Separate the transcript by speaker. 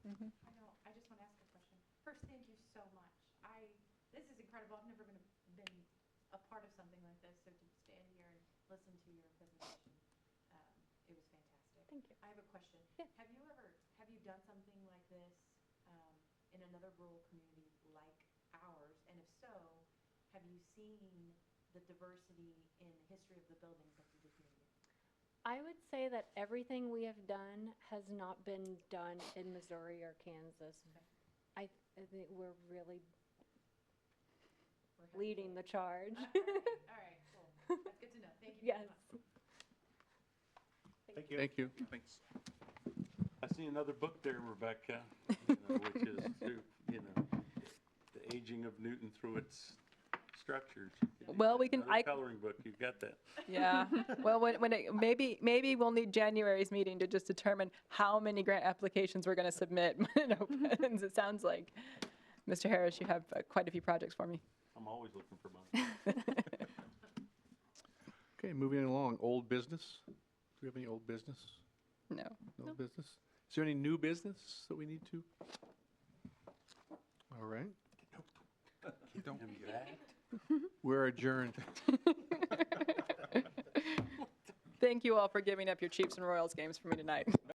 Speaker 1: listened to your presentation. Um, It was fantastic.
Speaker 2: Thank you.
Speaker 1: I have a question.
Speaker 2: Yeah.
Speaker 1: Have you ever, have you done something like this um, in another rural community like ours? And if so, have you seen the diversity in the history of the buildings of the community?
Speaker 2: I would say that everything we have done has not been done in Missouri or Kansas.
Speaker 1: Okay.
Speaker 2: I, I think we're really
Speaker 1: We're happy.
Speaker 2: leading the charge.
Speaker 1: Uh, All right, all right, cool. That's good to know. Thank you very
Speaker 2: Yes.
Speaker 1: much.
Speaker 3: Thank you.
Speaker 4: Thank you.
Speaker 3: Thanks. I see another book there, Rebecca, you know, which is through, you know, the aging of Newton through its structures. You could do
Speaker 5: Well,
Speaker 3: that.
Speaker 5: we can-
Speaker 3: Another
Speaker 5: I-
Speaker 3: Coloring book, you've got that.
Speaker 5: Yeah. Well, when, when it, maybe, maybe we'll need January's meeting to just determine how many grant applications we're going to submit when it opens. It sounds like, Mr. Harris, you have uh, quite a few projects for me.
Speaker 3: I'm always looking for money.
Speaker 4: Okay, moving along, old business. Do we have any old business?
Speaker 5: No.
Speaker 4: No business? Is there any new business that we need to? All right,
Speaker 3: In fact,
Speaker 4: we're adjourned.
Speaker 5: Thank you all for giving up your Chiefs and Royals games for me tonight.